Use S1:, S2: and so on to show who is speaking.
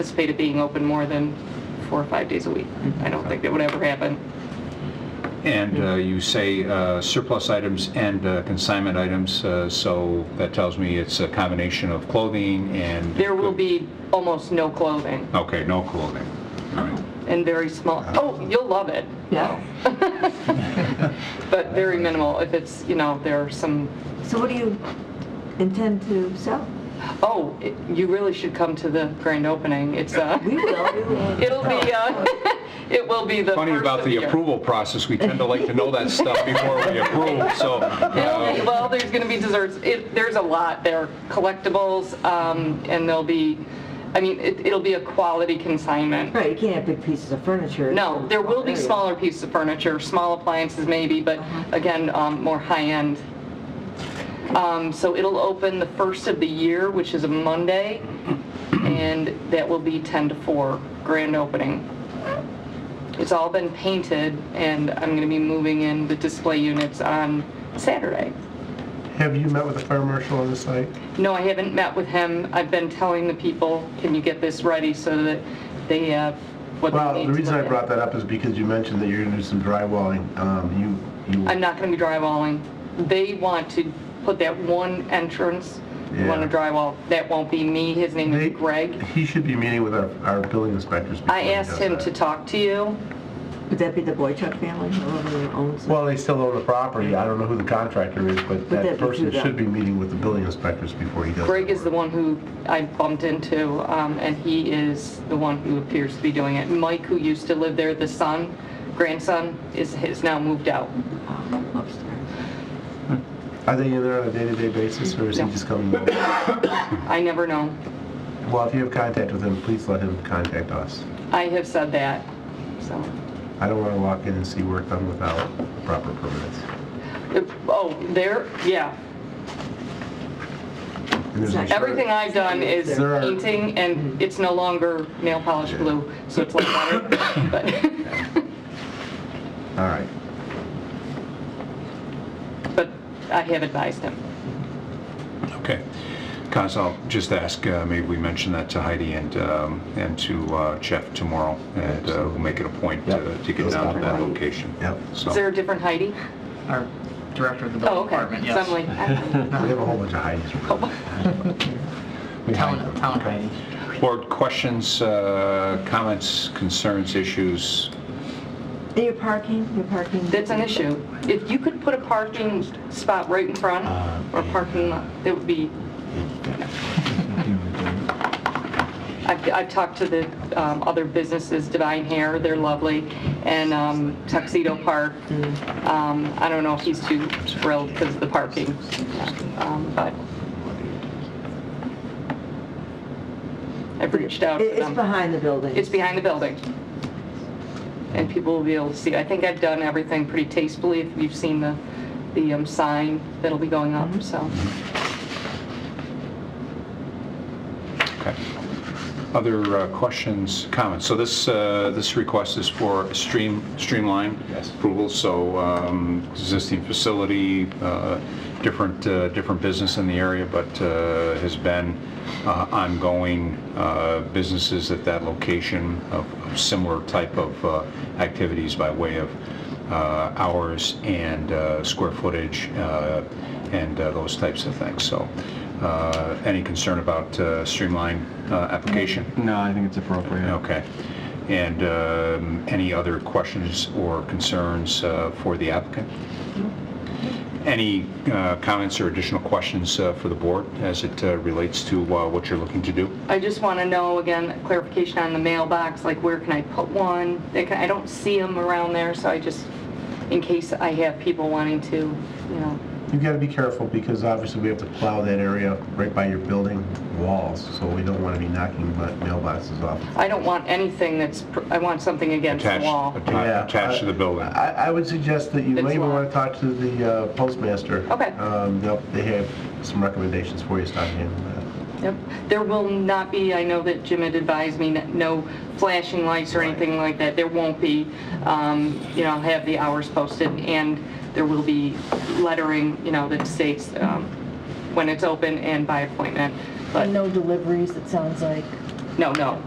S1: anticipated being open more than four or five days a week.
S2: Mm-hmm.
S1: I don't think that would ever happen.
S2: And uh, you say uh, surplus items and uh, consignment items, uh, so that tells me it's a combination of clothing and...
S1: There will be almost no clothing
S2: Okay, no clothing. All right.
S1: and very small, oh, you'll love it.
S3: Yeah.
S1: But very minimal. If it's, you know, there are some,
S3: So what do you intend to sell?
S1: oh, it- you really should come to the grand opening. It's, uh,
S3: We will, we will.
S1: it'll be, uh, it will be the
S2: Funny
S1: first
S2: about
S1: of
S2: the
S1: year.
S2: approval process, we tend to like to know that stuff before we approve, so...
S1: It'll be-
S2: uh,
S1: Well, there's going to be desserts. It, there's a lot. There are collectibles, um, and there'll be, I mean, it, it'll be a quality consignment.
S3: Right, you can't have big pieces of furniture.
S1: No, there will be
S3: Area.
S1: smaller pieces of furniture, small appliances maybe, but again, um, more high-end. Um, so it'll open the first of the year, which is a Monday, and that will be 10 to 4, grand opening. It's all been painted, and I'm going to be moving in the display units on Saturday.
S4: Have you met with the fire marshal on the site?
S1: No, I haven't met with him. I've been telling the people, can you get this ready so that they have what they need to
S4: Well, the reason
S1: look
S4: I
S1: at?"
S4: brought that up is because you mentioned that you're going to do some drywalling. Um, You, you,
S1: I'm not going to be drywalling. They want to put that one entrance, they want to
S4: Yeah.
S1: drywall. That won't be me. His name
S4: they-
S1: is Greg.
S4: He should be meeting with our, our building inspectors. before
S1: I
S4: he
S1: asked
S4: does
S1: him
S4: that.
S1: to talk to you.
S3: Would that be the Boychuk family, whoever owns it?
S4: Well, they still own the property. I don't know who the contractor is, but
S3: that
S4: that
S3: be
S4: person
S3: through them?
S4: should be meeting with the building inspectors before he does.
S1: Greg
S4: that
S1: is the
S4: work.
S1: one who I bumped into, um, and he is the one who appears to be doing it. Mike, who used to live there, the son, grandson, is, has now moved out.
S3: Oh, upstairs.
S4: Are they in there on a day-to-day basis, or is he
S1: No.
S4: just coming? over?
S1: I never know.
S4: Well, if you have contact with him, please let him contact us.
S1: I have said that, so.
S4: I don't want to walk in and see work done without proper permits.
S1: Oh, there, yeah.
S4: And there's a-
S1: Everything I've done is
S4: There are- Mm-hmm.
S1: painting, and it's no longer nail polish glue, so it's like water. But,
S4: All right.
S1: but I have advised him.
S2: uh, Okay. Cons, I'll just ask, uh, maybe we mention that to Heidi and, um, and to uh, Jeff tomorrow, and uh, we'll make it a point to
S4: Yep.
S2: to get down to that location.
S4: Yep.
S2: So-
S1: Is there a different Heidi?
S5: our director of the
S1: Oh,
S5: building
S1: okay.
S5: department, yes.
S1: Suddenly, I-
S4: We have a whole bunch of Heidi's. We hide
S5: Town,
S4: them.
S5: town Heidi.
S2: Board questions, uh, comments, concerns, issues?
S3: And your parking, your parking?
S1: that's an issue. If you could put a parking spot right in front, or parking lot, that would be, I've, I've talked to the um, other businesses, Divine Hair, they're lovely, and um, Tuxedo Park. Um, I don't know if he's too thrilled because of the parking, um, but I've reached out
S3: It-
S1: to them.
S3: It's behind the building.
S1: It's behind the building. And people will be able to see. I think I've done everything pretty tastefully. If you've seen the, the um, sign that'll be going up, so.
S2: Okay. Other uh, questions, comments? So this, uh, this request is for stream, streamline
S4: Yes.
S2: approval, so um, existing facility, uh, different, uh, different business in the area, but uh, has been uh, ongoing uh, businesses at that location of of similar type of uh, activities by way of uh, hours and uh, square footage uh, and uh, those types of things. So uh, any concern about uh, streamline uh, application?
S6: No, I think it's appropriate.
S2: Okay. And um, any other questions or concerns uh, for the applicant? Any uh, comments or additional questions uh, for the board as it uh, relates to uh, what you're looking to do?
S1: I just want to know, again, clarification on the mailbox, like where can I put one? They can- I don't see them around there, so I just, in case I have people wanting to, you know.
S4: You've got to be careful because obviously we have to plow that area right by your building walls, so we don't want to be knocking ma- mailboxes off.
S1: I don't want anything that's, pr- I want something against the
S2: Attached-
S1: wall.
S2: atta- Attached to the building?
S4: I, I would suggest that you
S1: It's
S4: may even
S1: locked.
S4: want to talk to the uh, postmaster.
S1: Okay.
S4: Um, they'll- They have some recommendations for you, start handling that.
S1: Yep. There will not be, I know that Jim had advised me, n- no flashing lights or anything like that. There won't be. Um, You know, I'll have the hours posted, and there will be lettering, you know, that states um, when it's open and by appointment. But
S7: No deliveries, it sounds like.
S1: no, no,